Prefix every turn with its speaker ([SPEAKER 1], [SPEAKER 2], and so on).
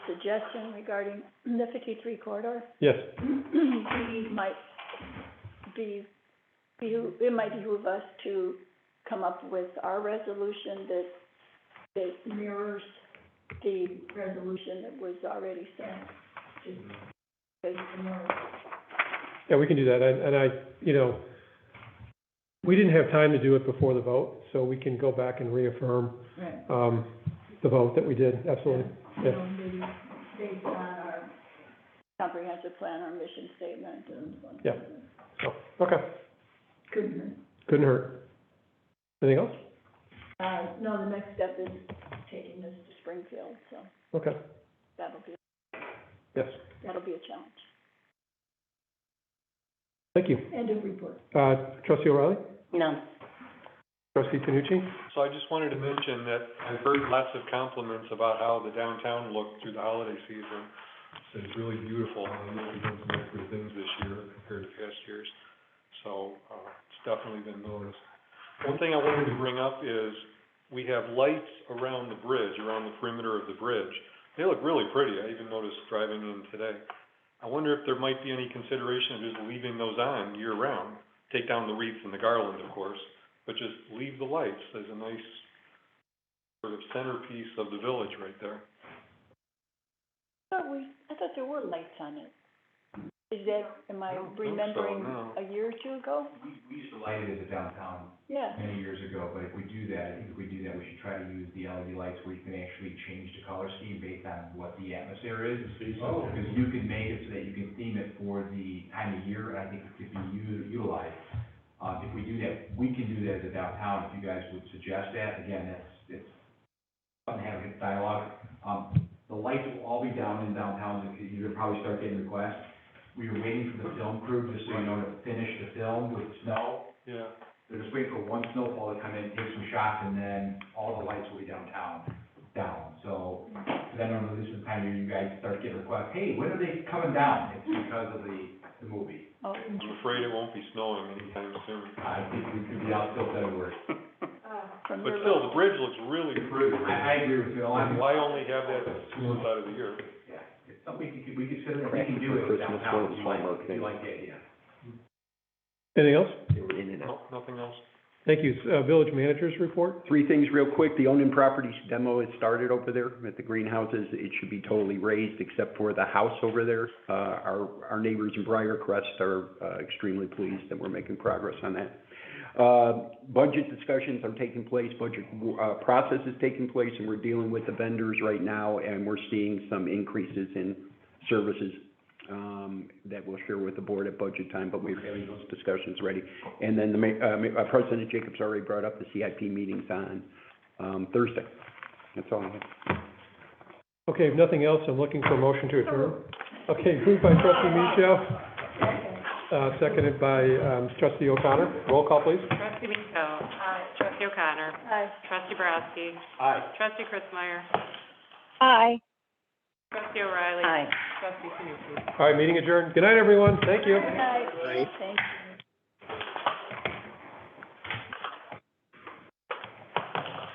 [SPEAKER 1] suggestion regarding the fifty-three corridor?
[SPEAKER 2] Yes,
[SPEAKER 1] We might be, be, it might behoove us to come up with our resolution that, that mirrors the resolution that was already sent. Just because the more-
[SPEAKER 2] yeah, we can do that, and, and I, you know, we didn't have time to do it before the vote, so we can go back and reaffirm,
[SPEAKER 1] Right.
[SPEAKER 2] um, the vote that we did, absolutely.
[SPEAKER 1] You know, maybe based on our comprehensive plan, our mission statement and.
[SPEAKER 2] Yeah. So, okay,
[SPEAKER 1] Couldn't hurt.
[SPEAKER 2] couldn't hurt. Anything else?
[SPEAKER 1] Uh, no, the next step is taking this to Springfield, so
[SPEAKER 2] Okay,
[SPEAKER 1] that'll be,
[SPEAKER 2] yes,
[SPEAKER 1] that'll be a challenge.
[SPEAKER 2] thank you.
[SPEAKER 1] End of report.
[SPEAKER 2] Uh, trustee O'Reilly,
[SPEAKER 3] No.
[SPEAKER 2] trustee Tanucci,
[SPEAKER 4] So I just wanted to mention that I've heard lots of compliments about how the downtown looked through the holiday season. So It's really beautiful, and I know we've done some extra things this year compared to past years, so, uh, it's definitely been noticed. One thing I wanted to bring up is, we have lights around the bridge, around the perimeter of the bridge. They look really pretty, I even noticed driving in today. I wonder if there might be any consideration of just leaving those on year-round, take down the wreaths and the garland, of course, but just leave the lights as a nice sort of centerpiece of the village right there.
[SPEAKER 1] Thought we, I thought there were lights on it. Is that, am I
[SPEAKER 4] I don't think so,
[SPEAKER 1] remembering
[SPEAKER 4] no.
[SPEAKER 1] a year or two ago?
[SPEAKER 5] We, we used to light it as a downtown
[SPEAKER 1] Yeah,
[SPEAKER 4] Mm-hmm.
[SPEAKER 5] many years ago, but if we do that, I think if we do that, we should try to use the LED lights where you can actually change the color scheme based on what the atmosphere is.
[SPEAKER 4] Oh.
[SPEAKER 5] Because you can make it so that you can theme it for the time of year, and I think it could be u- utilized. Uh, if we do that, we can do that as a downtown, if you guys would suggest that, again, that's, it's, fun having a dialogue. Um, the lights will all be down in downtown, and you're gonna probably start getting requests. We were waiting for the film crew, just so you know, to finish the film with snow.
[SPEAKER 4] Yeah.
[SPEAKER 5] They're just waiting for one snowfall to come in, take some shots, and then all the lights will be downtown, down. So, then normally this is the time where you guys start getting requests, hey, when are they coming down? It's because of the, the movie.
[SPEAKER 1] oh,
[SPEAKER 4] I'm afraid it won't be snowing anytime soon.
[SPEAKER 5] I think we could be out till February.
[SPEAKER 1] from your.
[SPEAKER 4] But still, the bridge looks really pretty.
[SPEAKER 5] I, I agree with you, a lot of-
[SPEAKER 4] Why only have that two months out of the year?
[SPEAKER 5] yeah, it's something we could, we could consider, we can do it downtown, if you like, if you like the idea.
[SPEAKER 2] anything else?
[SPEAKER 6] in and out.
[SPEAKER 4] No, nothing else?
[SPEAKER 2] Thank you, uh, village managers report,
[SPEAKER 6] Three things real quick, the owned and properties demo has started over there at the greenhouses, it should be totally raised except for the house over there. Uh, our, our neighbors in Briar Crest are uh, extremely pleased that we're making progress on that. Uh, budget discussions are taking place, budget, uh, process is taking place, and we're dealing with the vendors right now, and we're seeing some increases in services, um, that we'll share with the board at budget time, but we're having those discussions ready. And then the ma- uh, ma- uh, President Jacobs already brought up the CIP meetings on, um, Thursday. That's all I have.
[SPEAKER 2] okay, if nothing else, I'm looking for a motion to adjourn. Okay, moved by trustee Michelle, uh, seconded by, um, trustee O'Connor, roll call please.
[SPEAKER 7] Trustee Mico. Aye. Trustee O'Connor.
[SPEAKER 1] Aye.
[SPEAKER 7] Trustee Barowski.
[SPEAKER 5] Aye.
[SPEAKER 7] Trustee Chris Meyer.
[SPEAKER 3] Aye.
[SPEAKER 7] Trustee O'Reilly.
[SPEAKER 3] Aye.
[SPEAKER 7] Trustee Sanucci.
[SPEAKER 2] All right, meeting adjourned, good night, everyone, thank you.
[SPEAKER 1] Good night. Thank you.